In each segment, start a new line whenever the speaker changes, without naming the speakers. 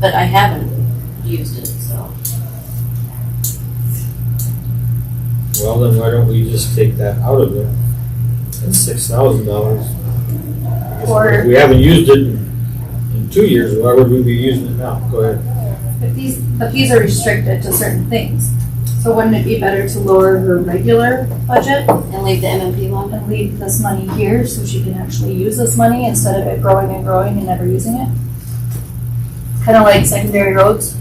But I haven't used it, so.
Well, then why don't we just take that out of there? That's six thousand dollars.
Or-
We haven't used it in, in two years, why would we be using it now? Go ahead.
But these, but these are restricted to certain things. So wouldn't it be better to lower her regular budget
And leave the MMP one?
and leave this money here so she can actually use this money instead of it growing and growing and never using it? Kind of like secondary roads.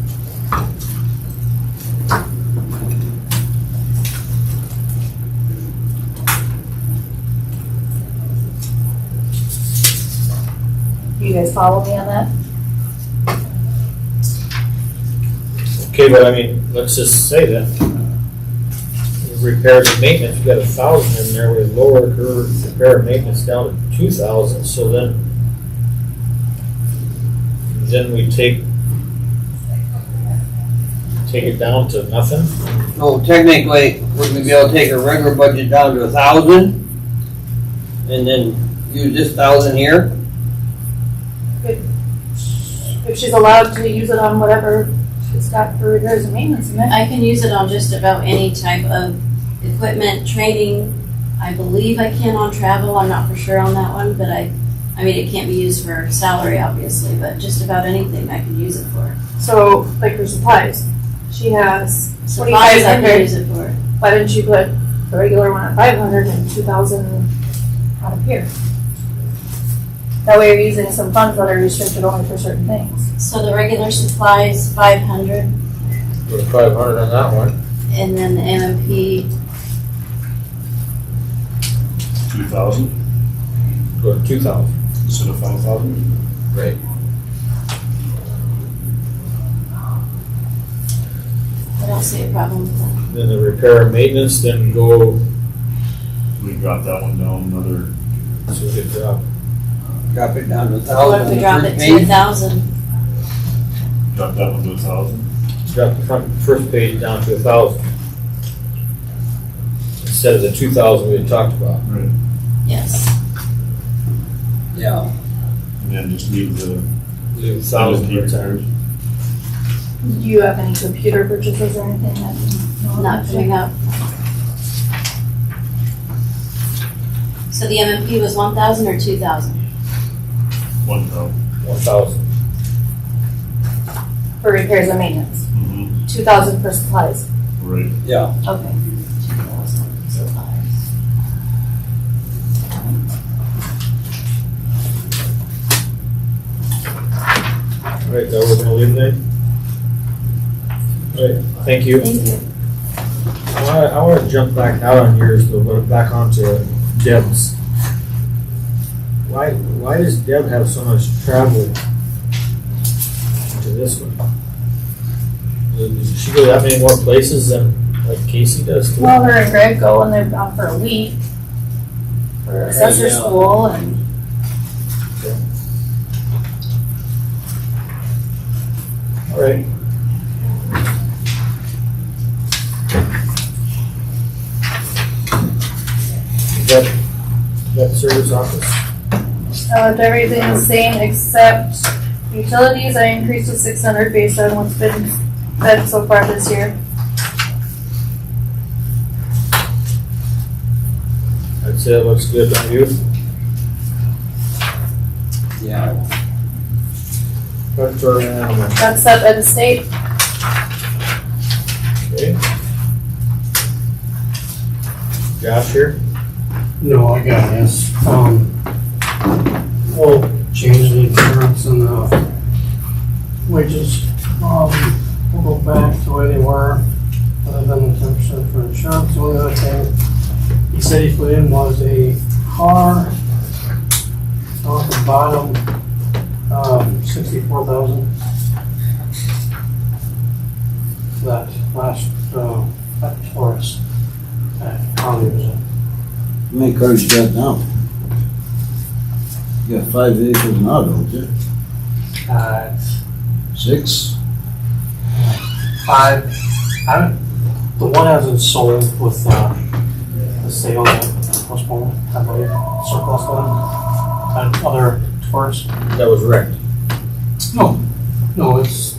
Do you guys follow me on that?
Okay, but I mean, let's just say that. if Repairs and maintenance, we got a thousand in there, we lowered her repair and maintenance down to two thousand, so then. Then we take. Take it down to nothing?
No, technically, would we be able to take our regular budget down to a thousand? And then use this thousand here?
if she's allowed to use it on whatever she's got for repairs and maintenance in it.
I can use it on just about any type of equipment, training. I believe I can on travel, I'm not for sure on that one, but I, I mean, it can't be used for salary, obviously, but just about anything I can use it for.
So, like her supplies, she has
Supplies I can
2,500.
use it for.
Why didn't you put the regular one at five hundred and two thousand out of here? That way you're using some funds that are restricted only for certain things.
So the regular supplies, five hundred,
Put five hundred on that one.
and then the MMP,
Two thousand
Go to two thousand.
instead of five thousand?
Right.
I don't see a problem with that.
Then the repair and maintenance, then go
We drop that one down another,
to the uh, job.
Drop it down to a
What if
thousand
we
the
drop it to a thousand?
first page?
drop that one to a thousand.
Drop the front, first page down to a thousand. Instead of the two thousand we had talked about.
Right.
Yes,
Yeah.
And then just leave the.
Leave a thousand
Leave the
retired.
Do you have any computer purchases or anything that? no,
not coming up. So the MMP was one thousand or two thousand?
One thousand.
One thousand.
For repairs and maintenance,
Mm-hmm.
two thousand for supplies.
Right.
Yeah,
Okay.
Two thousand supplies.
Right, that we're gonna leave then? Right, thank you.
Thank you.
I wanna, I wanna jump back out on yours, but we're back onto Deb's. Why, why does Deb have so much travel to this one? Does she go that many more places than like Casey does? too?
Well, her and Greg go and they're gone for a week for assessor
Yeah.
school and
All right. Debt, debt service office,
uh, everything the same except utilities. I increased to six hundred based on what's been spent so far this year.
I'd say that looks good on you.
yeah.
But for an animal,
That's set by the state.
okay? Josh here?
No, I got this. Um, we'll change the insurance and the wages. Um, we'll go back to where they were, other than the ten percent for insurance. The only other thing he said he put in was a car. Off the bottom, um, sixty-four thousand. That last, uh, that Taurus, that county was in.
How many cars you got now? You got five vehicles now, don't you?
uh,
Six?
five. I don't, the one hasn't sold with uh, the sale that postponed, I believe, surplus one. And other tours.
That was wrecked.
No. No, it's